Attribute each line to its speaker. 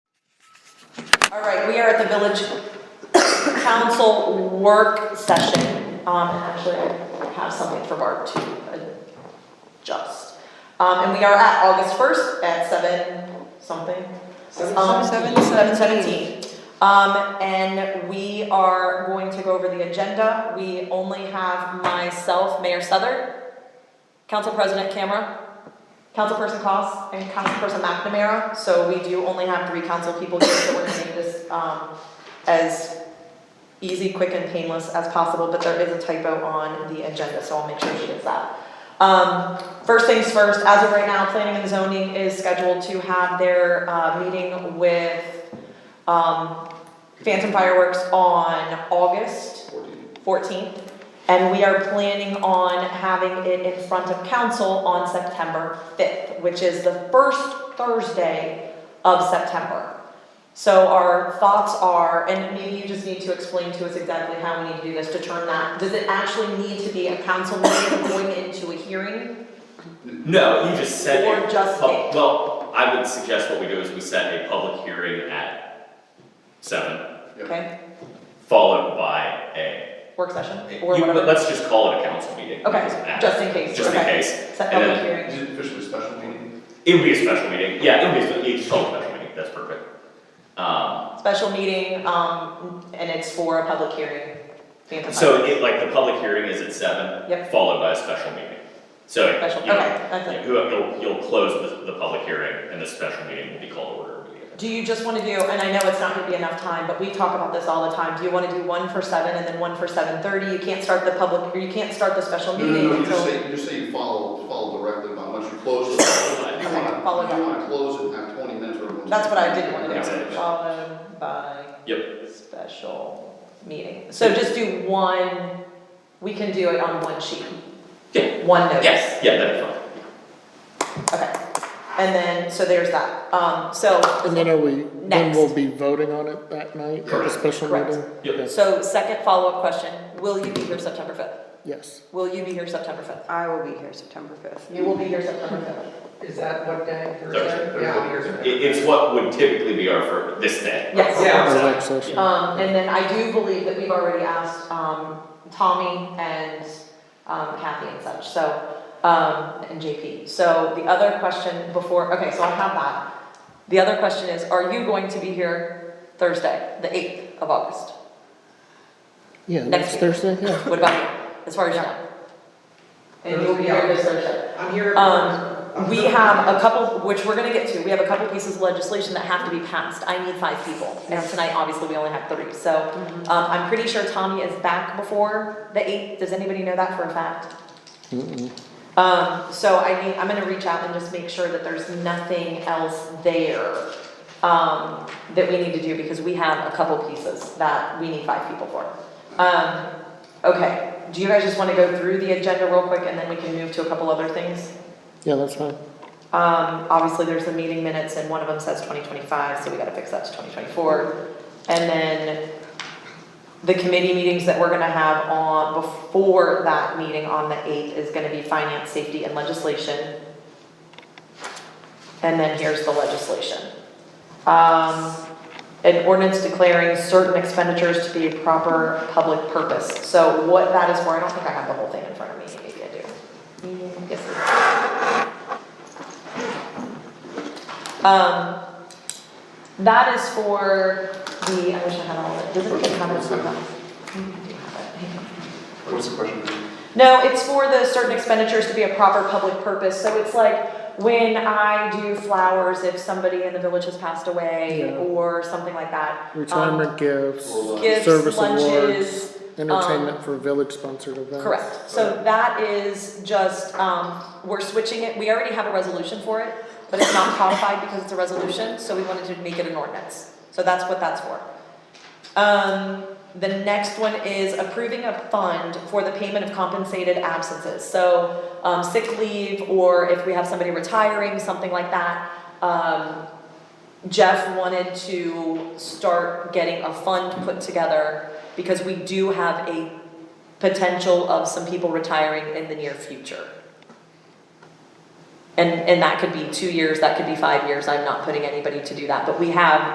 Speaker 1: All right, we are at the village council work session. Um, and actually, I have something for Barb to adjust. Um, and we are at August first at seven something. Um, seven seventeen. Um, and we are going to go over the agenda. We only have myself, Mayor Southern, Council President Camera, Councilperson Cos, and Councilperson McNamara. So we do only have three council people here, so we're gonna make this, um, as easy, quick, and painless as possible, but there is a typo on the agenda, so I'll make sure she gets that. Um, first things first, as of right now, planning and zoning is scheduled to have their, uh, meeting with, um, Phantom Fireworks on August fourteenth. And we are planning on having it in front of council on September fifth, which is the first Thursday of September. So our thoughts are, and maybe you just need to explain to us exactly how we need to do this to turn that, does it actually need to be a council meeting going into a hearing?
Speaker 2: No, you just set
Speaker 1: Or
Speaker 2: a.
Speaker 1: just
Speaker 2: pub-
Speaker 1: a-
Speaker 2: Well, I would suggest what we do is we set a public hearing at seven,
Speaker 1: Okay,
Speaker 2: followed by a.
Speaker 1: work session
Speaker 2: you-
Speaker 1: or
Speaker 2: but
Speaker 1: whatever,
Speaker 2: Let's just call it a council meeting. It doesn't
Speaker 1: okay,
Speaker 2: matter.
Speaker 1: just in case,
Speaker 2: Just in
Speaker 1: okay,
Speaker 2: case.
Speaker 1: set
Speaker 2: And then-
Speaker 1: public hearing,
Speaker 3: Is it officially a special meeting?
Speaker 2: It would be a special meeting, yeah, it would be, you just call it a special meeting, that's perfect. Um,
Speaker 1: special meeting, um, and it's for a public hearing. Phantom
Speaker 2: so it, like, the public hearing is at seven.
Speaker 1: Yep.
Speaker 2: Followed by a special meeting. So,
Speaker 1: Fireworks. Special,
Speaker 2: you know,
Speaker 1: okay, that's it.
Speaker 2: you- you'll, you'll close the, the public hearing and the special meeting will be called to order immediately.
Speaker 1: Do you just wanna do, and I know it's not gonna be enough time, but we talk about this all the time, do you wanna do one for seven and then one for seven thirty? You can't start the public, or you can't start the special
Speaker 3: No,
Speaker 1: meeting until.
Speaker 3: no, no, you just say, you just say you follow, follow directly, but once you close it, you
Speaker 1: Okay,
Speaker 3: wanna,
Speaker 1: follow
Speaker 3: you wanna close it, and have twenty minutes or. everyone's-
Speaker 1: That's what I did want
Speaker 2: Yeah.
Speaker 1: to do, followed by.
Speaker 2: Yep.
Speaker 1: Special meeting, so just do one, we can do it on one sheet.
Speaker 2: Yeah.
Speaker 1: One notice.
Speaker 2: Yes, yeah, that'd be fine.
Speaker 1: Okay, and then, so there's that, um, so.
Speaker 4: And then are we, then
Speaker 1: Next.
Speaker 4: we'll be voting on it that night at the
Speaker 3: Correct.
Speaker 4: special
Speaker 1: Correct.
Speaker 4: meeting?
Speaker 2: Yep.
Speaker 4: Yes.
Speaker 1: So second follow-up question, will you be here September fifth?
Speaker 4: Yes,
Speaker 1: Will you be here September fifth?
Speaker 5: I will be here September fifth.
Speaker 1: You will be here September fifth.
Speaker 6: Is that what day?
Speaker 2: Thursday.
Speaker 6: Yeah.
Speaker 2: It, it's what would typically be our for this day.
Speaker 1: Yes.
Speaker 6: Yeah.
Speaker 4: our work session.
Speaker 1: Um, and then I do believe that we've already asked, um, Tommy and, um, Kathy and such, so, um, and JP. So the other question before, okay, so I have that. The other question is, are you going to be here Thursday, the eighth of August?
Speaker 4: Yeah,
Speaker 1: next
Speaker 4: next Thursday, yeah.
Speaker 1: What about you, as far as you know? And you'll be here this Thursday?
Speaker 6: I'm here.
Speaker 1: Um, we have a couple, which we're gonna get to, we have a couple pieces of legislation that have to be passed, I need five people. And tonight, obviously, we only have three, so, um, I'm pretty sure Tommy is back before the eighth, does anybody know that for a fact?
Speaker 4: Mm-mm.
Speaker 1: Um, so I need, I'm gonna reach out and just make sure that there's nothing else there, um, that we need to do, because we have a couple pieces that we need five people for. Um, okay, do you guys just wanna go through the agenda real quick, and then we can move to a couple other things?
Speaker 4: Yeah, that's fine.
Speaker 1: Um, obviously, there's the meeting minutes and one of them says twenty twenty-five, so we gotta fix that to twenty twenty-four. And then the committee meetings that we're gonna have on, before that meeting on the eighth is gonna be finance, safety and legislation. And then here's the legislation. Um, an ordinance declaring certain expenditures to be a proper public purpose. So what that is for, I don't think I have the whole thing in front of me, maybe I do. Mm, Yes, I do. Um, that is for the, I wish I had all of it, does anybody have it? Okay. Mm, do you have it? Hang on.
Speaker 3: What's the question?
Speaker 1: No, it's for the certain expenditures to be a proper public purpose, so it's like when I do flowers, if somebody in the village has passed away
Speaker 4: Yeah.
Speaker 1: or something like that.
Speaker 4: Retirement gifts,
Speaker 3: Or
Speaker 1: Um, Gifts,
Speaker 4: service awards,
Speaker 1: lunches, um,
Speaker 4: entertainment for village sponsored events.
Speaker 1: correct, so that is just, um, we're switching it, we already have a resolution for it, but it's not codified because it's a resolution, so we wanted to make it an ordinance, so that's what that's for. Um, the next one is approving a fund for the payment of compensated absences, so, um, sick leave, or if we have somebody retiring, something like that. Um, Jeff wanted to start getting a fund put together, because we do have a potential of some people retiring in the near future. And, and that could be two years, that could be five years, I'm not putting anybody to do that, but we have